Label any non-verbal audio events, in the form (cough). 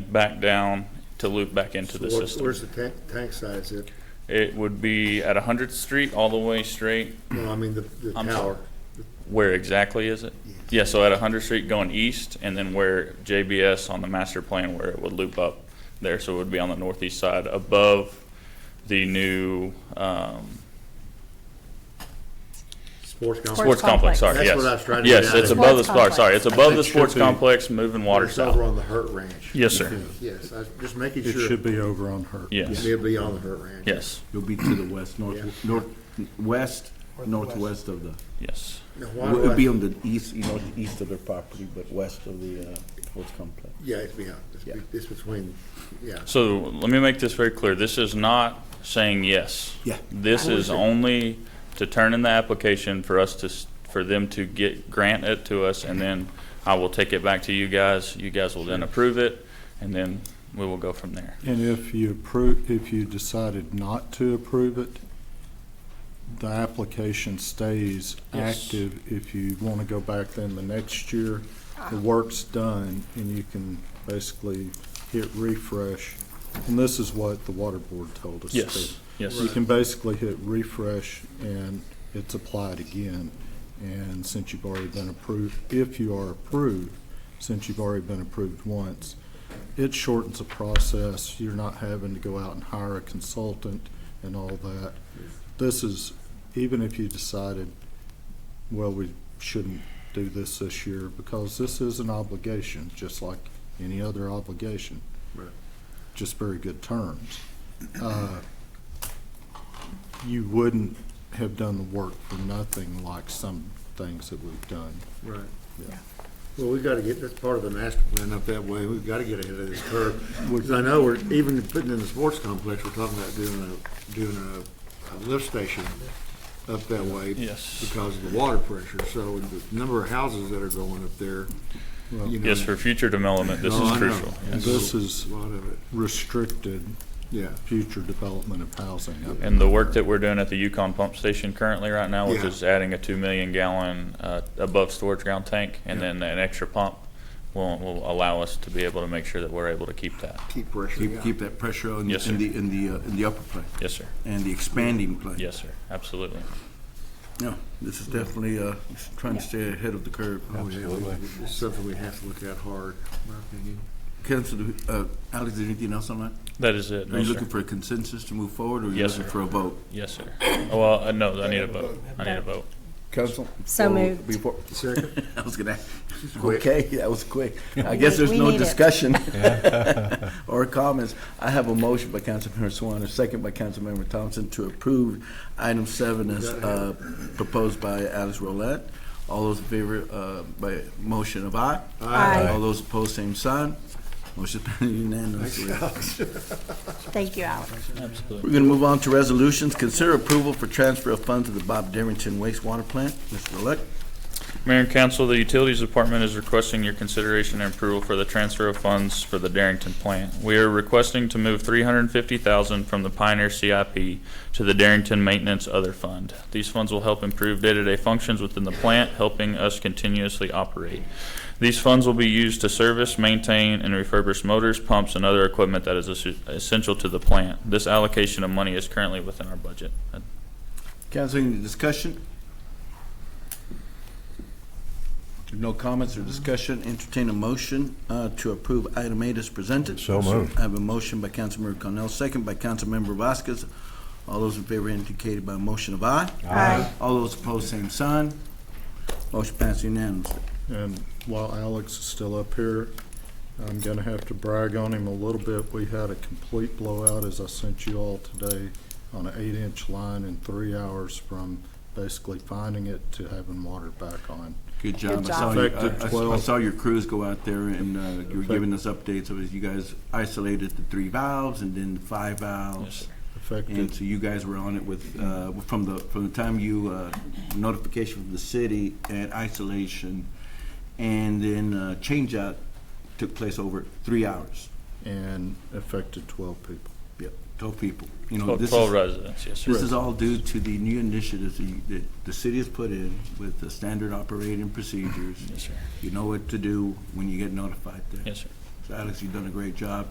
it back down to loop back into the So what's- system. Where's the tank, tank size at? It would be at 100th Street all the way straight, No, I mean the, the I'm tower. where exactly is it? Yeah, so at 100th Street going east, and then where JBS on the master plan where it would loop up there, so it would be on the northeast side above the new um, Sports complex. sports complex, complex. sorry, yes. That's what I was trying to Yes, get at. it's above the, Sports sorry, sorry, it's above the It should sports be- complex, moving water It's over south. on the Hurt Ranch. Yes, sir, Yes, I was just making It sure. should be over on her. yes, It'll be on the Hurt Ranch. yes, You'll be to the west, north, north, west, northwest of the, yes. Now, why do it'll be I, on the east, you know, east of their property, but west of the, uh, sports complex. yeah, it's beyond, it's be- Yeah. it's between, yeah. So let me make this very clear. This is not saying yes. Yeah. This is only to turn in the application for us to, s- for them to get, grant it to us, and then I will take it back to you guys. You guys will then approve it, and then we will go from there. And if you approve, if you decided not to approve it, the application stays Yes. active. If you want to go back then the next year, the work's done and you can basically hit refresh. And this is what the water board told us. to do. Yes, yes. You can basically hit refresh and it's applied again. And since you've already been approved, if you are approved, since you've already been approved once, it shortens the process. You're not having to go out and hire a consultant and all that. This is, even if you decided, well, we shouldn't do this this year, because this is an obligation, just like any other obligation. Right. Just very good terms. Uh, You wouldn't have done the work for nothing like some things that we've done. Right. Yeah. Well, we've got to get, that's part of the master plan up that way. We've got to get ahead of this curve. Because I know we're, even putting in the sports complex, we're talking about doing a, doing a, a lift station up that way. Yes. Because of the water pressure. So the number of houses that are going up there, you know. Yes, for future development, this No, is I know. crucial. And this is A lot of it, restricted yeah. future development of housing. up And the work that we're doing at the Yukon pump station currently right now, which Yeah. is adding a two million gallon, uh, above storage ground tank, and then an extra pump will, will allow us to be able to make sure that we're able to keep that. Keep pressure, Keep, yeah. keep that pressure on, Yes, in sir. the, in the, uh, in the upper plane, Yes, sir. and the expanding plane. Yes, sir. Absolutely. No, this is definitely, uh, trying to stay ahead of the curve. Oh, yeah, we- It's something we have to look at hard, in my opinion. Council, uh, Alex, is there anything else on that? That is it. Are No, you sir. looking for a consensus to move forward, or are you Yes, looking sir. for a vote? Yes, sir. Oh, Well, uh, no, I need a vote. I need a vote. Council? So moved. Before, Second, (laughs) I was gonna, Quick. okay, that was quick. I guess (laughs) there's We no need it. (laughs) discussion (laughs) or comments. I have a motion by Councilmember Swan, a second by Councilmember Thompson to approve item seven as uh, proposed by Alice Rolette. All those in favor uh, by motion of aye? Aye. Aye. All those opposed, same sign. Motion (laughs) unanimously. Thank you, Alex. We're gonna move on to resolutions. Consider approval for transfer of funds to the Bob Derrington wastewater plant. Mr. Rolette? Mayor and council, the Utilities Department is requesting your consideration and approval for the transfer of funds for the Darrington plant. We are requesting to move three hundred and fifty thousand from the Pioneer CIP to the Darrington Maintenance Other Fund. These funds will help improve day-to-day functions within the plant, helping us continuously operate. These funds will be used to service, maintain, and refurbish motors, pumps, and other equipment that is essen- essential to the plant. This allocation of money is currently within our budget. Council, any discussion? If No comments or discussion, entertain a motion uh, to approve item eight as presented. So moved. I have a motion by Councilmember Cornell, second by Councilmember Vasquez. All those in favor indicated by a motion of aye. Aye. All those opposed, same sign. Motion passed unanimously. And while Alex is still up here, I'm gonna have to brag on him a little bit. We had a complete blowout, as I sent you all today, on an eight-inch line in three hours from basically finding it to having water back on. Good job. Good I saw you- job. I- I- Effective I 12. saw your crews go out there and uh, you were giving us updates of it. You guys isolated the three valves and then the five valves. And Affected, so you guys were on it with, uh, from the, from the time you, uh, notification from the city and isolation, and then, uh, changeout took place over three hours. and affected twelve people. Yep, twelve people. You know, Twelve Oh, this Oh, twelve is, residents, yes, sir. this is all due to the new initiatives that you- that the city has put in with the standard operating procedures. Yes, sir. You know what to do when you get notified there. Yes, sir. Alice, you've done a great job.